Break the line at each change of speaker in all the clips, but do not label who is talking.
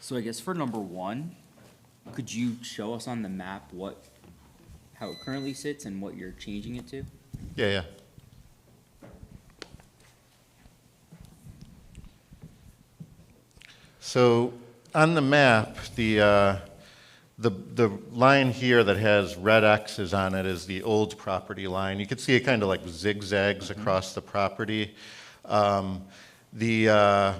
So I guess for number one, could you show us on the map what, how it currently sits and what you're changing it to?
Yeah, yeah. So on the map, the, uh, the, the line here that has red X's on it is the old property line. You can see it kind of like zigzags across the property. Um, The, uh,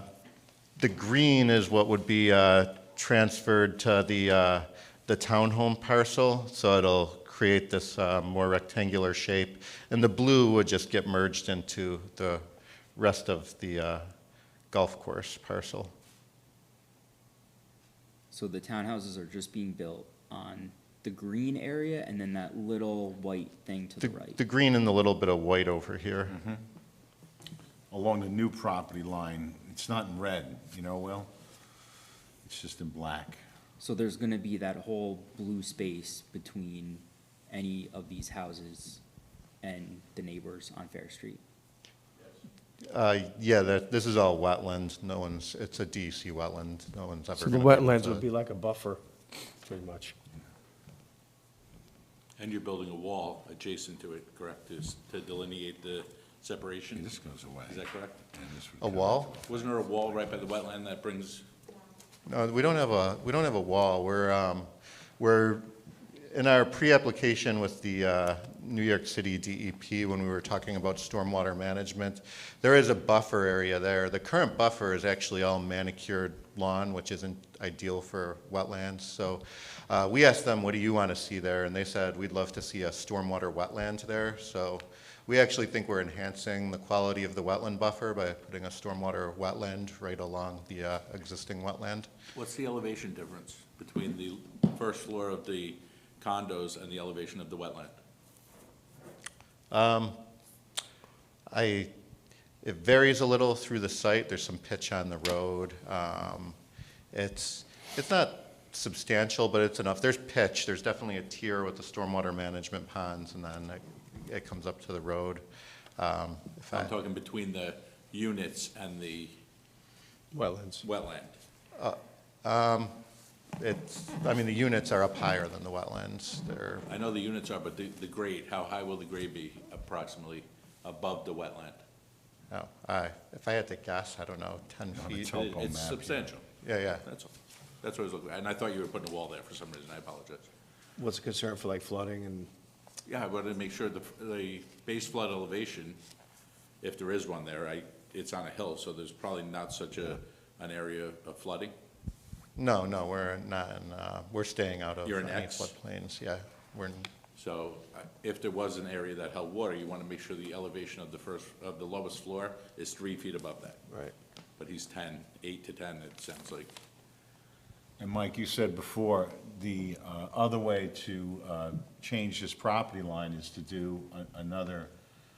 the green is what would be uh, transferred to the, uh, the townhome parcel, so it'll create this uh, more rectangular shape. And the blue would just get merged into the rest of the uh, golf course parcel.
So the townhouses are just being built on the green area and then that little white thing to the
The,
right?
the green and the little bit of white over here.
along the new property line. It's not in red, you know, Will? It's just in black.
So there's gonna be that whole blue space between any of these houses and the neighbors on Fair Street?
Uh, Yeah, that, this is all wetland, no one's, it's a DEC wetland, no one's ever.
So the
gonna build
wetlands
a-
would be like a buffer, pretty much.
And you're building a wall adjacent to it, correct, to s- to delineate the
Hey,
separation?
This goes away.
Is that correct?
And this would
A
come
wall?
Wasn't there a wall right by the wetland that brings,
No, we don't have a, we don't have a wall. We're, um, we're, in our pre-application with the, uh, New York City DEP, when we were talking about stormwater management, there is a buffer area there. The current buffer is actually all manicured lawn, which isn't ideal for wetlands. So, uh, we asked them, what do you want to see there? And they said, we'd love to see a stormwater wetland there. So, we actually think we're enhancing the quality of the wetland buffer by putting a stormwater wetland right along the uh, existing wetland.
what's the elevation difference between the first floor of the condos and the elevation of the wetland?
I, it varies a little through the site, there's some pitch on the road. Um, It's, it's not substantial, but it's enough. There's pitch, there's definitely a tier with the stormwater management ponds, and then it- it comes up to the road. Um, if I-
I'm talking between the units and the
Wetlands.
wetland.
It's, I mean, the units are up higher than the wetlands, they're
I know the units are, but the, the grade, how high will the grade be approximately above the wetland?
Oh, I, if I had to guess, I don't know, 10
on the
feet?
topo
It-
map
It's
here.
substantial,
Yeah, yeah.
that's all. That's what I was looking, at. and I thought you were putting a wall there for some reason, I apologize.
What's the concern for like flooding and,
Yeah, I wanted to make sure the, the base flood elevation, if there is one there, I, it's on a hill, so there's probably not such a, an area of flooding.
No, no, we're not, in, uh, we're staying out of
You're in
any
X.
floodplains, yeah. We're, in-
So uh, if there was an area that held water, you want to make sure the elevation of the first, of the lowest floor is three feet above that.
right?
But he's ten, eight to ten, it sounds like.
And Mike, you said before, the uh, other way to uh, change this property line is to do a- another,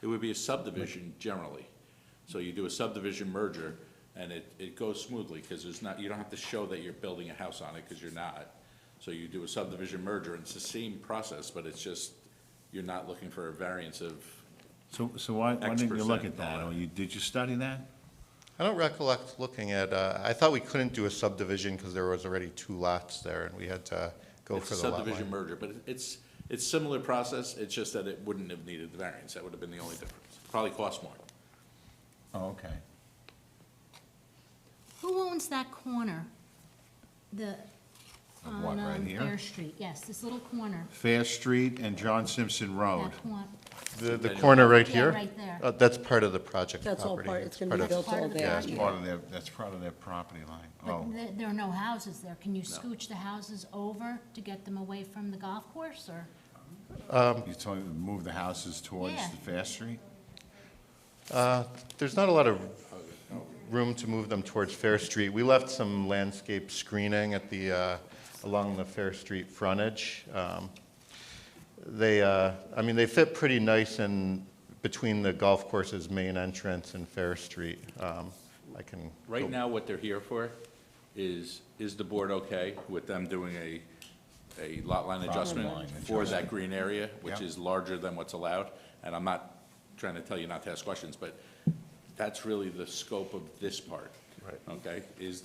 It would be a subdivision generally. So you do a subdivision merger, and it, it goes smoothly, because there's not, you don't have to show that you're building a house on it, because you're not. So you do a subdivision merger, and it's the same process, but it's just, you're not looking for a variance of,
so, so why, why didn't you look
X percent
at that?
dollar.
Or you, did you study that?
I don't recollect looking at, uh, I thought we couldn't do a subdivision because there was already two lots there and we had to go
it's
for
a
the lot
subdivision
line.
merger, but it's, it's similar process, it's just that it wouldn't have needed the variance, that would have been the only difference. Probably cost more.
Oh, okay.
Who owns that corner? The,
Of what,
on
right
um,
here?
Fair Street, yes, this little corner,
Fair Street and John Simpson Road.
that corner.
The, the corner right
Yeah,
here?
right there.
Uh, That's part of the project property.
That's all part, it's gonna
part
be
of-
built
Part
all
of the
there.
That's part of their, that's part of their property line.
But
Oh,
there, there are no houses there. Can you scooch the houses over to get them away from the golf course, or?
you're telling me to move the houses towards
Yeah.
the Fair Street?
There's not a lot of room to move them towards Fair Street. We left some landscape screening at the, uh, along the Fair Street frontage. Um, They, uh, I mean, they fit pretty nice in between the golf course's main entrance and Fair Street. Um, I can. go-
Right now, what they're here for is, is the board okay with them doing a, a lot line
line
adjustment for that
adjustment.
green area, which
Yeah.
is larger than what's allowed? And I'm not trying to tell you not to ask questions, but that's really the scope of this part.
Right.
Okay, is